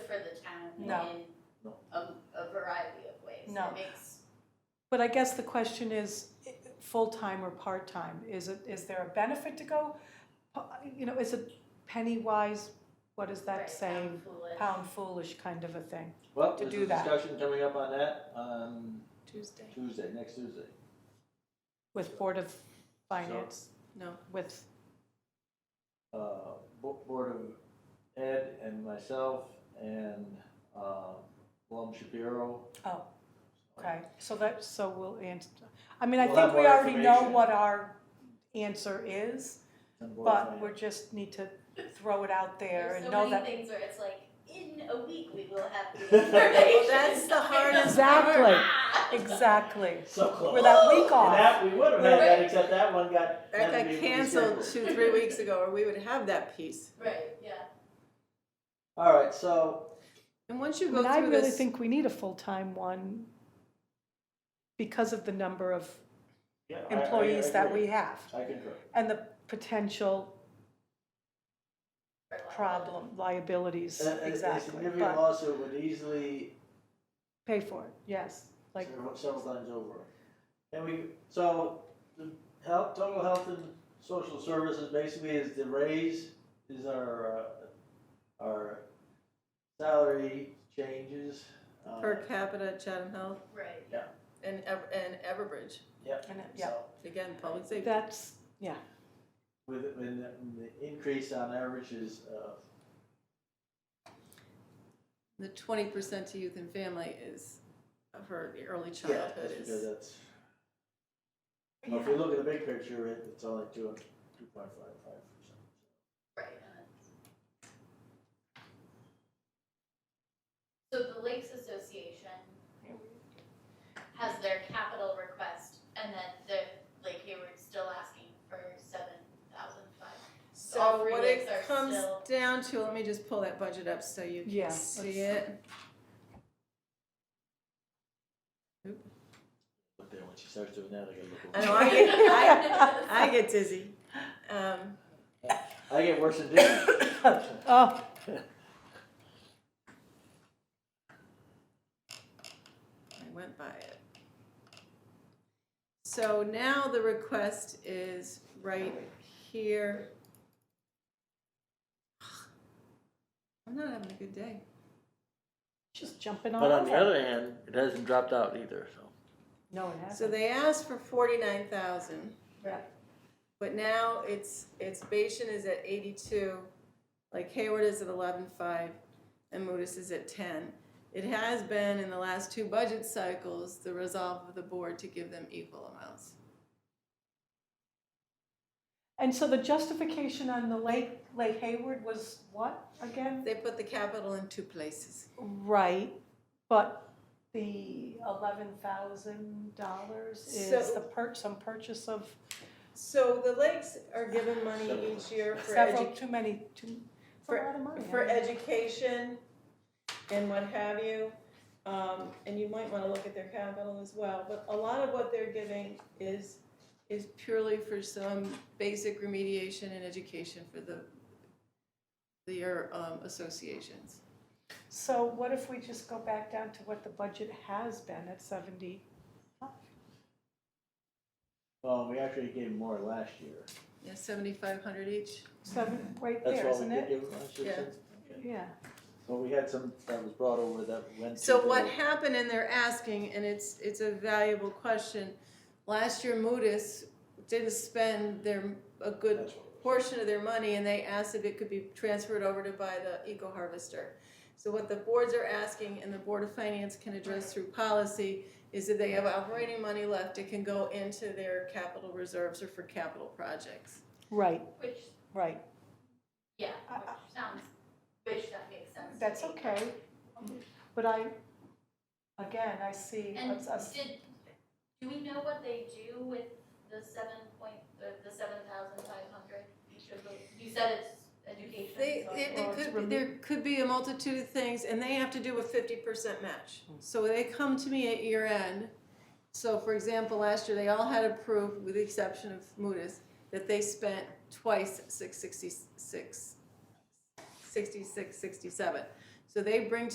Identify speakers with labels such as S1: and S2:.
S1: No.
S2: in a, a variety of ways.
S1: No.
S2: It makes,
S1: But I guess the question is, i- full-time or part-time? Is it, is there a benefit to go? You know, is it penny wise, what does
S2: right,
S1: that say?
S2: sound foolish.
S1: Pound foolish kind of a thing.
S3: Well,
S1: to
S3: there's
S1: do
S3: a
S1: that.
S3: discussion coming up on that on
S4: Tuesday.
S3: Tuesday, next Tuesday.
S1: With Board of Finance,
S4: No.
S1: with,
S3: Uh, Bo- Board of Ed and myself and uh, Lum Shapiro.
S1: oh, okay. So that, so we'll answer, I mean, I
S3: We'll
S1: think
S3: have
S1: we
S3: more
S1: already know
S3: information.
S1: what our answer is,
S3: and Board of
S1: but we
S3: Finance.
S1: just need to throw it out there
S2: There's
S1: and
S2: so
S1: know
S2: many
S1: that.
S2: things where it's like, in a week we will have the
S3: Well,
S2: information.
S4: that's the hardest
S1: Exactly.
S2: Ah!
S1: Exactly.
S3: So close.
S1: We're that week
S3: And
S1: off.
S3: that, we would have had that,
S2: Right.
S3: except that one got. had to
S4: That got
S3: be
S4: canceled
S3: rescheduled.
S4: two, three weeks ago, or we would have that piece.
S2: Right, yeah.
S3: All right, so,
S4: And once you
S1: I
S4: go
S1: mean, I
S4: through
S1: really
S4: this,
S1: think we need a full-time one because of the number of
S3: yeah. I- I- I
S1: employees that
S3: agree.
S1: we have
S3: I concur.
S1: and the potential
S2: For a lot of
S1: problem, liabilities,
S3: A- a- A
S1: exactly.
S3: significant
S1: But
S3: lawsuit would easily
S1: pay for it, yes, like,
S3: several several times over. And we, so, the health, total health and social services basically is the raise, is our, uh, our salary changes. uh,
S4: per capita Chatham Health
S2: it. Right.
S4: and, Ever- and Everbridge,
S1: and it- yeah,
S3: so
S4: again, public safety.
S1: that's,
S3: With, when the- when the increase on average is, uh,
S4: The twenty percent to youth and family is for the early
S3: yeah,
S4: childhood
S3: that's because
S4: is,
S3: that's. Well, if you look at the big picture, it- it's only two, two point five five percent.
S2: Right. So the Lakes Association has their capital request and then the Lake Hayward's still asking for seven thousand five. all
S4: so
S2: three
S4: what
S2: lakes
S4: it
S2: are
S4: comes
S2: still-
S4: down to, let me just pull that budget up so you
S1: Yeah,
S4: can see
S1: let's-
S4: it.
S3: But then when she starts doing that, I gotta look. over.
S4: I know, I get, I, I get dizzy. Um,
S3: I get worse than Disney.
S1: oh,
S4: I went by it. So now the request is right here. I'm not having a good day.
S1: just jumping all
S5: But on the
S1: over.
S5: other hand, it hasn't dropped out either, so.
S1: No, it
S4: So
S1: hasn't.
S4: they asked for forty-nine thousand.
S1: Right.
S4: But now it's, it's, Bashan is at eighty-two, like Hayward is at eleven-five, and Modis is at ten. It has been in the last two budget cycles, the resolve of the board to give them equal amounts.
S1: And so the justification on the Lake, Lake Hayward was what again?
S4: They put the capital in two places.
S1: Right, but the eleven thousand dollars is
S4: So-
S1: the per, some purchase of
S4: So the lakes are given money
S3: Several.
S4: each year for
S1: several,
S4: edu-
S1: too many, too, it's a
S4: for-
S1: lot of money. I
S4: for
S1: mean,
S4: education and what have you. Um, and you might wanna look at their capital as well, but a lot of what they're giving is, is purely for some basic remediation and education for the, their, um, associations.
S1: So what if we just go back down to what the budget has been at seventy?
S3: Well, we actually gave more last year.
S4: Yeah, seventy-five hundred each.
S1: Seven,
S4: Mm-hmm.
S1: right
S3: That's
S1: there,
S3: what we
S1: isn't
S3: did
S1: it?
S3: give last year.
S4: Yeah.
S3: since-
S1: Yeah,
S3: So we had some that was brought over that went to.
S4: So
S3: the-
S4: what happened, and they're asking, and it's, it's a valuable question, last year Modis didn't spend their, a good
S3: That's what it was.
S4: portion of their money, and they asked if it could be transferred over to buy the eco harvester. So what the boards are asking, and the Board of Finance can address through policy, is that they have operating money left, it can go into their capital reserves or for capital projects.
S1: right,
S2: Which,
S1: right.
S2: yeah,
S1: I-
S2: which sounds, which that makes sense. to
S1: Uh, That's
S2: me.
S1: okay. But I, again, I see,
S2: And
S1: us- us-
S2: did, do we know what they do with the seven point, the, the seven thousand five hundred each of the, you said it's education.
S4: They,
S2: so-
S4: there,
S1: Well,
S4: there
S1: it's
S4: could,
S1: remi-
S4: there could be a multitude of things, and they have to do a fifty percent match.
S1: Hmm.
S4: So they come to me at year end, so for example, last year, they all had approved, with the exception of Mutis, that they spent twice six sixty-six, sixty-six, sixty-seven. So they bring